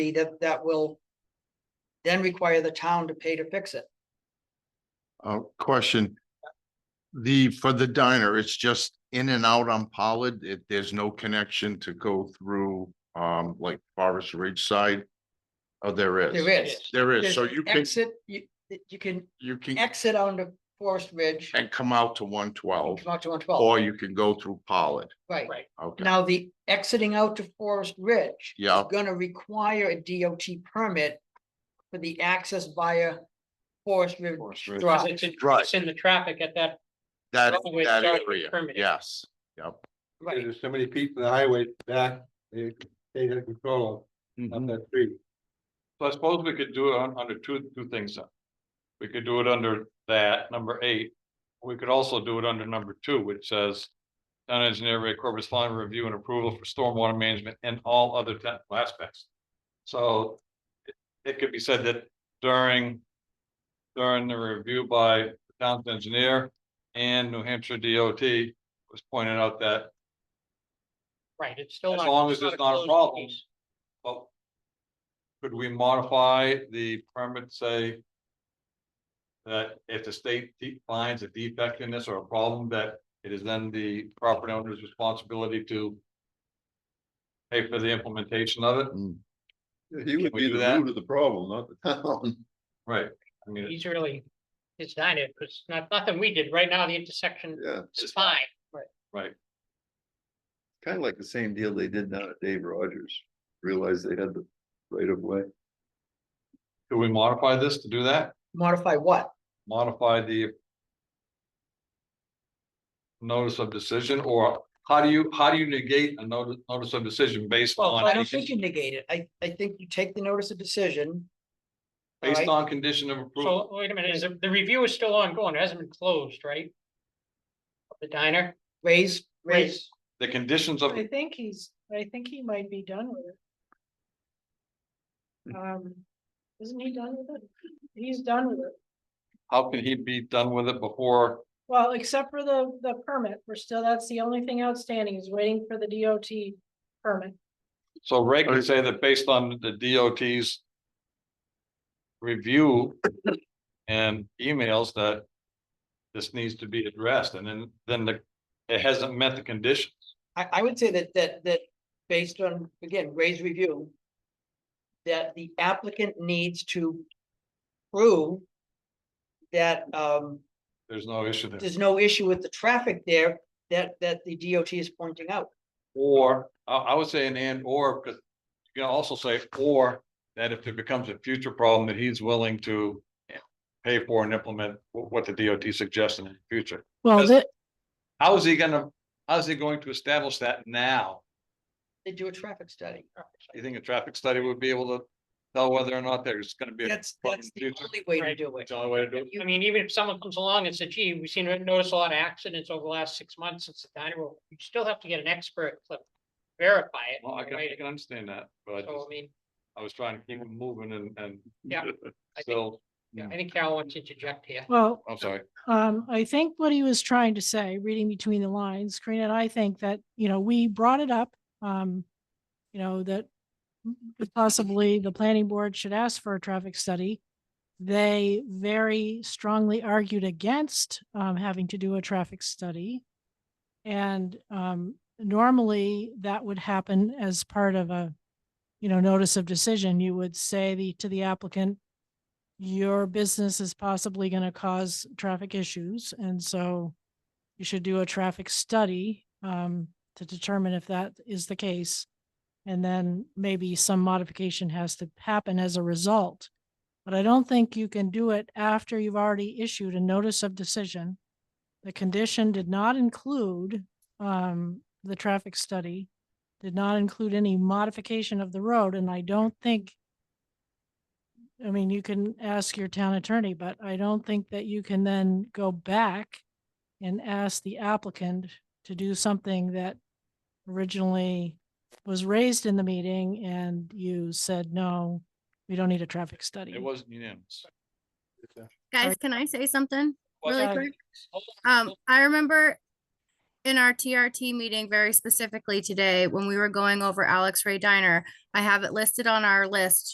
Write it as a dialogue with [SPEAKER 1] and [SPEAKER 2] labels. [SPEAKER 1] that, that will then require the town to pay to fix it.
[SPEAKER 2] Uh, question. The, for the diner, it's just in and out on Pollard. It, there's no connection to go through, um, like Forest Ridge side? Oh, there is.
[SPEAKER 1] There is.
[SPEAKER 2] There is.
[SPEAKER 1] There's
[SPEAKER 2] So you can,
[SPEAKER 1] Exit, you, you can
[SPEAKER 2] you can,
[SPEAKER 1] exit onto Forest Ridge.
[SPEAKER 2] and come out to one twelve,
[SPEAKER 1] Come out to one twelve,
[SPEAKER 2] or you can go through Pollard.
[SPEAKER 1] right.
[SPEAKER 3] Right.
[SPEAKER 2] Okay,
[SPEAKER 1] Now, the exiting out to Forest Ridge.
[SPEAKER 2] yeah,
[SPEAKER 1] gonna require a DOT permit for the access via Forest River
[SPEAKER 2] Forest River.
[SPEAKER 3] Because
[SPEAKER 1] Drive,
[SPEAKER 3] it's in,
[SPEAKER 2] Right.
[SPEAKER 3] it's in the traffic at that,
[SPEAKER 2] that,
[SPEAKER 3] Well, it's
[SPEAKER 2] that
[SPEAKER 3] already
[SPEAKER 2] area,
[SPEAKER 3] permitted.
[SPEAKER 2] yes, yep.
[SPEAKER 1] right?
[SPEAKER 4] There's so many people in the highway back, they, they have control of on that street.
[SPEAKER 5] So I suppose we could do it on, under two, two things. then. We could do it under that, number eight. We could also do it under number two, which says. Town engineer Ray Corbett's final review and approval for stormwater management and all other technical aspects. So. it- It could be said that during. During the review by the town's engineer and New Hampshire DOT was pointed out that
[SPEAKER 3] right, it's still.
[SPEAKER 5] As
[SPEAKER 3] not-
[SPEAKER 5] long as it's not a
[SPEAKER 3] closed
[SPEAKER 5] problem.
[SPEAKER 3] piece.
[SPEAKER 5] Well. Could we modify the permit, say? That if the state de- finds a defect in this or a problem, that it is then the property owner's responsibility to. Pay for the implementation of it,
[SPEAKER 4] He
[SPEAKER 5] would Mm. we be do the that? root
[SPEAKER 4] of the problem, not the town.
[SPEAKER 5] right? I mean,
[SPEAKER 3] He's really, his diner, because not, nothing we did. Right now, the intersection
[SPEAKER 4] Yeah,
[SPEAKER 3] is fine.
[SPEAKER 5] right,
[SPEAKER 4] kind of like the same deal they did down at Dave Rogers, realized they had the right of way.
[SPEAKER 5] could we modify this to do that,
[SPEAKER 1] Modify what?
[SPEAKER 5] modify the. Notice of decision, or how do you, how do you negate a notice, notice of decision based
[SPEAKER 1] Well,
[SPEAKER 5] on?
[SPEAKER 1] I don't think you negate it. I, I think you take the notice of decision.
[SPEAKER 5] Based
[SPEAKER 1] right?
[SPEAKER 5] on condition of approval?
[SPEAKER 3] So wait a minute, is, the the review is still ongoing. It hasn't been closed, right? The diner,
[SPEAKER 1] Raise, raise,
[SPEAKER 3] raise,
[SPEAKER 5] The conditions of,
[SPEAKER 6] I think he's, I think he might be done with it. Um, isn't he done with it? He's done with it.
[SPEAKER 5] how can he be done with it before,
[SPEAKER 6] Well, except for the, the permit, we're still, that's the only thing outstanding is waiting for the DOT permit.
[SPEAKER 5] so Ray can say that based on the DOT's. Review and emails that. This needs to be addressed and then, then the, it hasn't met the conditions.
[SPEAKER 1] I, I would say that, that, that based on, again, raise review. That the applicant needs to prove that, um,
[SPEAKER 5] There's no issue there.
[SPEAKER 1] there's no issue with the traffic there that, that the DOT is pointing out.
[SPEAKER 5] Or, I, I would say an and or, because you can also say or, that if it becomes a future problem that he's willing to. Pay for and implement wh- what the DOT suggests in the future.
[SPEAKER 6] Well,
[SPEAKER 5] Does- How is he gonna, how is he going to establish that now?
[SPEAKER 1] They do a traffic study.
[SPEAKER 5] You think a traffic study would be able to tell whether or not there's gonna be, a-
[SPEAKER 1] That's,
[SPEAKER 5] but in
[SPEAKER 1] that's the
[SPEAKER 5] future-
[SPEAKER 1] only way to
[SPEAKER 3] Right.
[SPEAKER 1] do it.
[SPEAKER 5] it's the only way to do it?
[SPEAKER 3] I mean, even if someone comes along and says, gee, we've seen, notice a lot of accidents over the last six months since the diner, opened," you still have to get an expert to verify it.
[SPEAKER 5] Well, I can, I
[SPEAKER 3] right?
[SPEAKER 5] can understand that, but I
[SPEAKER 3] So I
[SPEAKER 5] just-
[SPEAKER 3] mean,
[SPEAKER 5] I was trying to keep them moving and, and.
[SPEAKER 3] Yeah, I think-
[SPEAKER 5] So, mm,
[SPEAKER 3] I think Carol wants to interject here.
[SPEAKER 6] Well,
[SPEAKER 5] I'm sorry,
[SPEAKER 6] Um, I think what he was trying to say, reading between the lines, Karina and I think that, you know, we brought it up, um, you know, that possibly the planning board should ask for a traffic study. They very strongly argued against, um, having to do a traffic study. And, um, normally that would happen as part of a, you know, notice of decision. You would say the, to the applicant, your business is possibly going to cause traffic issues, and so you should do a traffic study um, to determine if that is the case. And then maybe some modification has to happen as a result. But I don't think you can do it after you've already issued a notice of decision. The condition did not include um, the traffic study, did not include any modification of the road, and I don't think I mean, you can ask your town attorney, but I don't think that you can then go back and ask the applicant to do something that originally was raised in the meeting and you said, no, we don't need a traffic study.
[SPEAKER 5] it wasn't unanimous.
[SPEAKER 7] Guys, can I say something
[SPEAKER 5] Well,
[SPEAKER 7] really
[SPEAKER 6] sorry.
[SPEAKER 7] quick?
[SPEAKER 3] Hold on.
[SPEAKER 7] Um, I remember in our TRT meeting very specifically today, when we were going over Alex Ray Diner, I have it listed on our list